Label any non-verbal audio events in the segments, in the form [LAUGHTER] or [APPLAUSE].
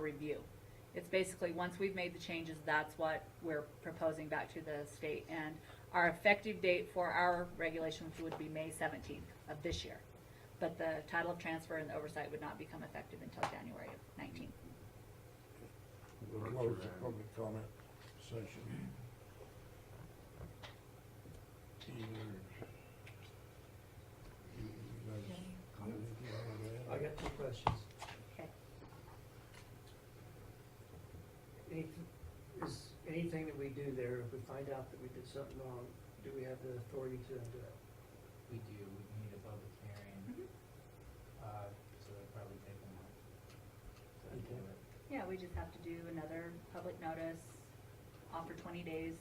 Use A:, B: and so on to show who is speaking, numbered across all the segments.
A: review. It's basically, once we've made the changes, that's what we're proposing back to the state. And our effective date for our regulations would be May seventeenth of this year. But the title of transfer and the oversight would not become effective until January of nineteen.
B: We'll
C: Work
B: close the
C: around.
B: public comment session. Either- you guys got anything you
D: I
B: wanna add?
D: got two questions.
A: Okay.
D: Any- Is anything that we do there, if we find out that we did something wrong, do we have the authority to undo it?
E: We do, we need a public hearing,
A: Mhm.
E: uh, so it'll probably take a month. to
D: Okay.
E: do it.
A: Yeah, we just have to do another public notice, offer twenty days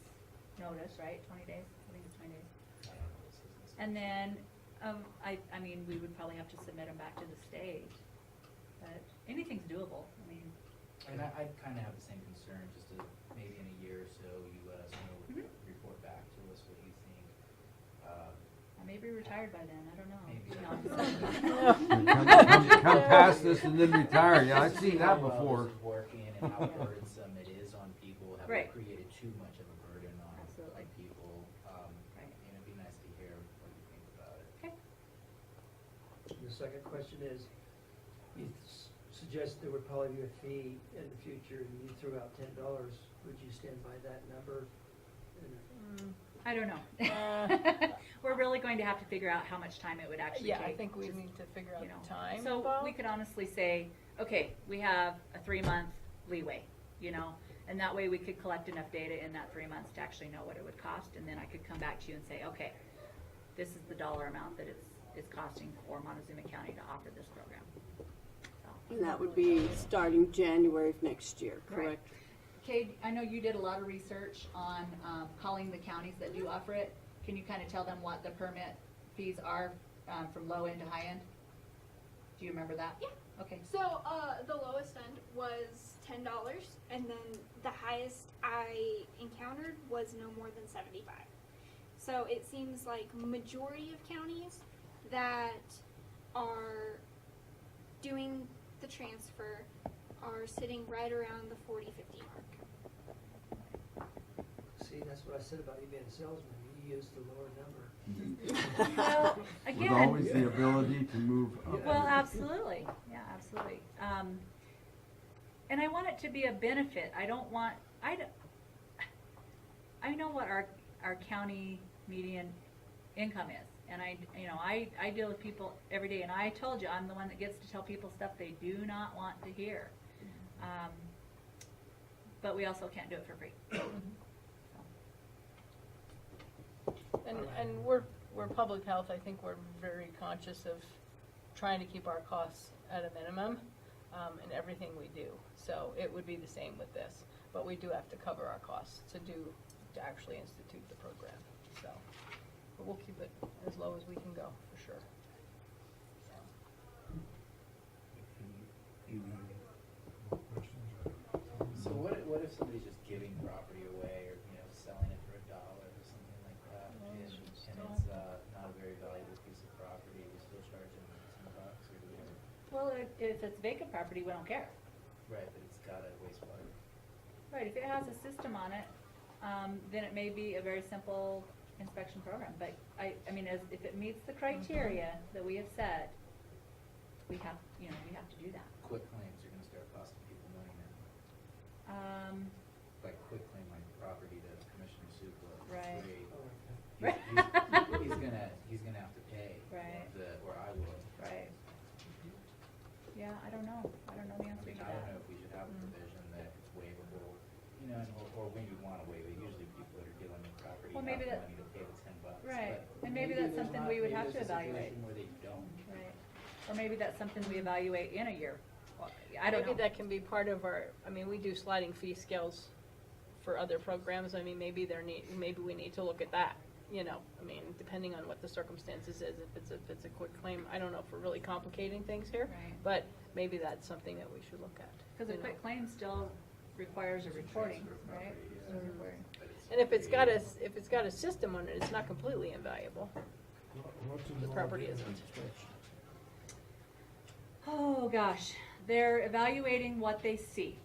A: notice, right? Twenty days? I think it's twenty days.
E: I don't know, this is-
A: And then, um, I, I mean, we would probably have to submit them back to the state, but anything's doable, I mean,
E: And I, I kinda have the same concern, just to, maybe in a year or so, you let us know,
A: Mhm.
E: report back to us what you think. Uh,
A: I may be retired by then, I don't
E: Maybe.
C: [LAUGHS]
F: [LAUGHS]
A: know. No,
C: Come
A: I'm just
C: come-
A: kidding. [LAUGHS]
C: come past this and then retire, yeah, I've
E: just to
C: seen
E: see
C: that
E: how well
C: before.
E: this is Working and how
A: [LAUGHS] Yeah.
E: burdensome it is on people, have we
A: Right.
E: created too much of a burden on, on
A: Absolutely.
E: people? Um,
A: Right.
E: and it'd be nice to hear what you think about it.
A: Okay,
D: And The second question is, you s- suggest there would probably be a fee in the future, and you threw out ten dollars, would you stand by that number? And
F: Mm,
A: I don't know.
F: Uh.
A: [LAUGHS] We're really going to have to figure out how much time it would actually take.
F: Yeah, I think we
A: to-
F: need to figure out
A: you know.
F: the time.
A: So
F: Bob. [LAUGHS]
A: we could honestly say, okay, we have a three-month leeway, you know? And that way we could collect enough data in that three months to actually know what it would cost, and then I could come back to you and say, okay, this is the dollar amount that it's, it's costing for Montezuma County to offer this program. So,
G: And that would be starting January of next year,
A: Right.
G: correct?
A: Kay, I know you did a lot of research on, um, calling the counties that do offer it. Can you kind of tell them what the permit fees are, um, from low end to high end? Do you remember that?
H: Yeah.
A: Okay.
H: So uh, the lowest end was ten dollars, and then the highest I encountered was no more than seventy-five. So it seems like majority of counties that are doing the transfer are sitting right around the 40 50 mark.
D: See, that's what I said about you being a salesman, you used the lower number.
A: Well,
C: With
A: again,
C: always the ability to move up.
A: well, absolutely, yeah, absolutely. Um, and I want it to be a benefit. I don't want, I, d- I know what our, our county median income is. And I, you know, I, I deal with people every day and I told you, I'm the one that gets to tell people stuff they do not want to hear. Um, but we also can't do it for free.
F: And, and we're, we're public health, I think we're very conscious of trying to keep our costs at a minimum, um, in everything we do. So it would be the same with this, but we do have to cover our costs to do, to actually institute the program, so. But we'll keep it as low as we can go, for sure. So,
B: You got more questions?
E: So what, if- what if somebody's just giving property away or, you know, selling it for a dollar or something like that?
F: Yeah,
E: And,
F: it's
E: and
F: just
E: it's, uh, not a very valuable piece of property, we still charge them ten bucks or whatever?
A: Well, if, if it's vacant property, we don't care.
E: Right, but it's got a wastewater.
A: Right, if it has a system on it, um, then it may be a very simple inspection program, but I, I mean, as, if it meets the criteria
F: Mm-hmm.
A: that we have set, we have, you know, we have to do that.
E: Quick claims are gonna start costing people money now.
A: Um,
E: By quick claim, like property that Commissioner Supla.
A: Right.
E: created.
D: Oh, okay.
E: He's-
A: Right.
E: He's he's gonna, he's gonna have to pay.
A: Right.
E: The, or I will.
A: Right.
F: Mm-hmm.
A: yeah, I don't know, I don't know the
E: I
A: answer
E: mean,
A: to
E: I don't
A: that.
E: know if we should have a
A: Mm.
E: provision that it's waivable, you know, and- or, or when you wanna waive it, usually people that are dealing with property
A: Well,
E: have
A: maybe
E: the
A: that-
E: money to pay the ten bucks.
A: Right,
E: but
A: and maybe that's
E: there's
A: something
E: not-
A: we would
E: maybe
A: have
E: there's
A: to
E: a situation
A: evaluate.
E: Where they don't.
A: Right, or maybe that's something we evaluate in a year, Well, I don't know.
F: Maybe that can be part of our, I mean, we do sliding fee scales for other programs, I mean, maybe there need, maybe we need to look at that, you know, I mean, depending on what the circumstances is, if it's, if it's a quick claim, I don't know if we're really complicating things here,
A: Right.
F: but maybe that's something that we should look at.
A: Cause a
F: you know.
A: quick claim still requires a
E: It's a
A: reporting,
E: transfer of
A: right?
E: property,
A: So
E: yeah.
A: reporting.
E: But it's-
F: And if it's got a, s- if it's got a system on it, it's not completely invaluable.
B: What- what's
F: The property
B: involved in
F: isn't.
B: inspection?
A: Oh, gosh, they're evaluating what they see.